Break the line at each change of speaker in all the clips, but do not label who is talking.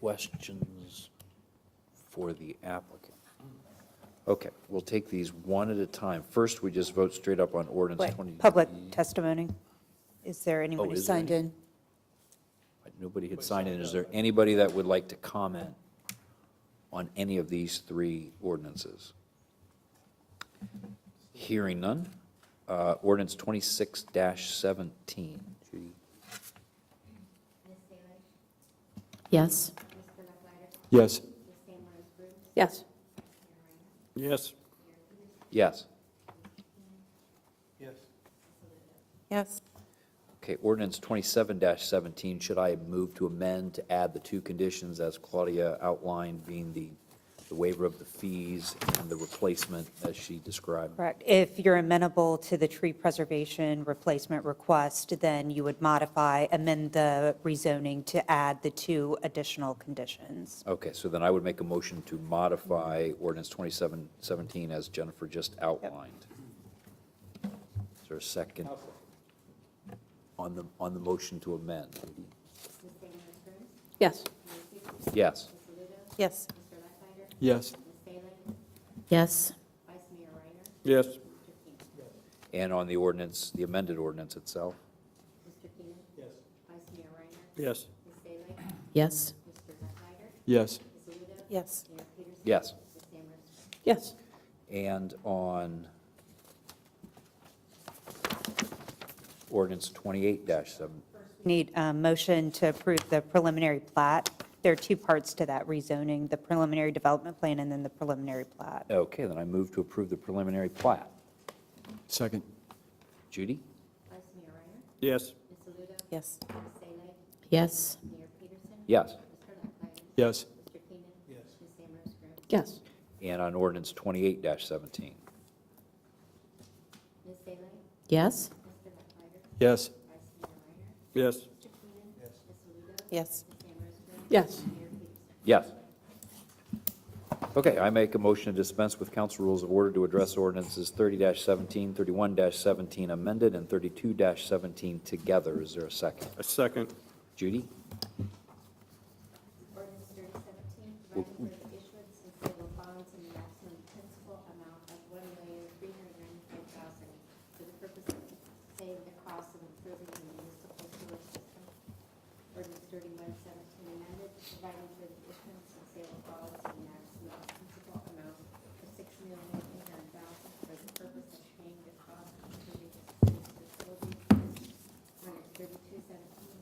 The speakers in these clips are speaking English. questions for the applicant? Okay, we'll take these one at a time. First, we just vote straight up on ordinance
Wait,
20.
Public testimony. Is there anyone
Oh,
who
is there
signed
any?
in?
Nobody had signed in. Is there anybody that would like to comment on any of these three ordinances? Hearing none. Uh, Ordinance 26-17. Judy?
Yes. Yes.
Yes. Yes.
Yes.
Yes.
Yes.
Okay, ordinance twenty-seven seventeen, should I move to amend to add the two conditions as Claudia outlined, being the, the waiver of the fees and the replacement as she described?
Correct. If you're amenable to the tree preservation replacement request, then you would modify, amend the rezoning to add the two additional conditions.
Okay, so then I would make a motion to modify ordinance twenty-seven seventeen as Jennifer just outlined. Is there a second? On the, on the motion to amend?
Yes.
Yes,
Yes.
Yes.
Yes.
Yes.
and on the ordinance, the amended ordinance itself?
Yes.
Yes.
Yes.
Yes.
Yes. Yes.
and on ordinance twenty-eight seven.
Need a motion to approve the preliminary plat. There are two parts to that rezoning, the preliminary development plan and then the preliminary plat.
Okay, then I move to approve the preliminary plat.
Second.
Judy?
Vice Mayor Reiner,
Yes.
Ms. Aludo,
Yes.
Ms. Saleh,
Yes.
Mayor Peterson,
Yes.
Mr. Lucklider,
Yes.
Mr. Keenan, Ms. Samrose Groom,
Yes.
And on ordinance twenty-eight seventeen.
Ms. Saleh,
Yes.
Mr. Lucklider,
Yes.
Vice Mayor Reiner,
Yes.
Mr. Keenan, Ms. Aludo,
Yes.
Ms. Samrose Groom,
Yes.
Mayor Peterson.
Yes. Okay, I make a motion to dispense with council rules of order to address ordinances thirty 17 31 seventeen amended, and thirty-two seventeen together. Is there a second?
A second.
Judy?
Ordinance thirty seventeen, providing for the issuance and sale of bonds in the maximum principal amount of one million three hundred ninety-four thousand for the purpose of saving the cost of improving the municipal sewer system. Ordinance thirty-one seventeen amended, providing for the issuance and sale of bonds in the maximum principal amount of six million eight hundred thousand for the purpose of paying the cost of improving the city's facilities. Ordinance thirty-two seventeen,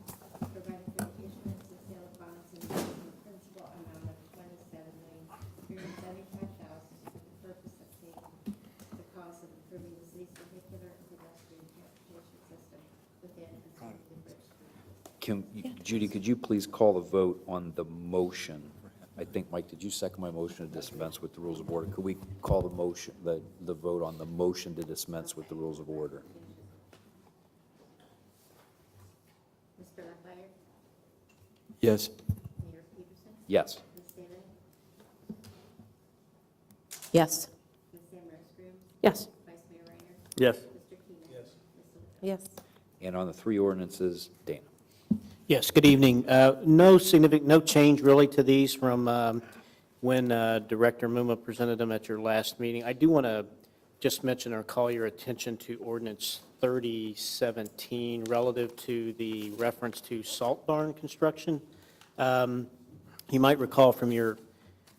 providing for the issuance and sale of bonds in the maximum principal amount of twenty-seven million three hundred seventy-five thousand for the purpose of paying the cost of improving the city's vehicular and pedestrian transportation system within and surrounding the bridge.
Can, Judy, could you please call the vote on the motion? I think, Mike, did you second my motion to dispense with the rules of order? Could we call the motion, the, the vote on the motion to dispense with the rules of order?
Mr. Lefferts,
Yes.
Mayor Peterson,
Yes.
Ms. Salem,
Yes.
Ms. Samrose Groom,
Yes.
Vice Mayor Reiner,
Yes.
Mr. Keenan. Ms. Aludo.
Yes.
And on the three ordinances, Dana?
Yes, good evening. Uh, No significant, no change really to these from um, when uh, Director Muma presented them at your last meeting. I do want to just mention or call your attention to ordinance 3017 relative to the reference to salt barn construction. Um, You might recall from your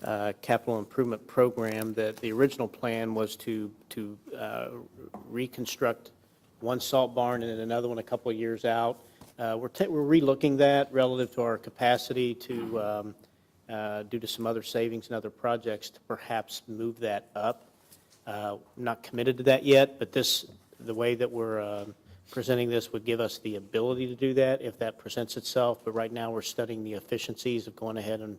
uh, capital improvement program that the original plan was to, to uh, reconstruct one salt barn and then another one a couple of years out. Uh, We're, ta- we're relooking that relative to our capacity to, um, uh, due to some other savings and other projects, to perhaps move that up. Uh, Not committed to that yet, but this, the way that we're um, presenting this would give us the ability to do that if that presents itself. But right now, we're studying the efficiencies of going ahead and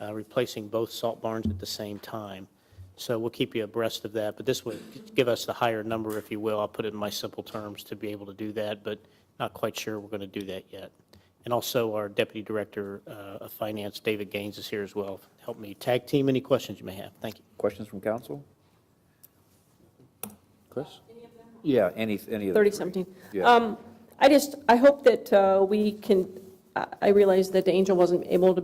uh, replacing both salt barns at the same time. So we'll keep you abreast of that, but this would give us the higher number, if you will. I'll put it in my simple terms to be able to do that, but not quite sure we're going to do that yet. And also, our Deputy Director uh, of Finance, David Gaines, is here as well. Help me tag team any questions you may have. Thank you.
Questions from council? Chris? Yeah, any, any of the
30
three.
something.
Yeah.
Um, I just, I hope that uh, we can, I- I realize that Angel wasn't able to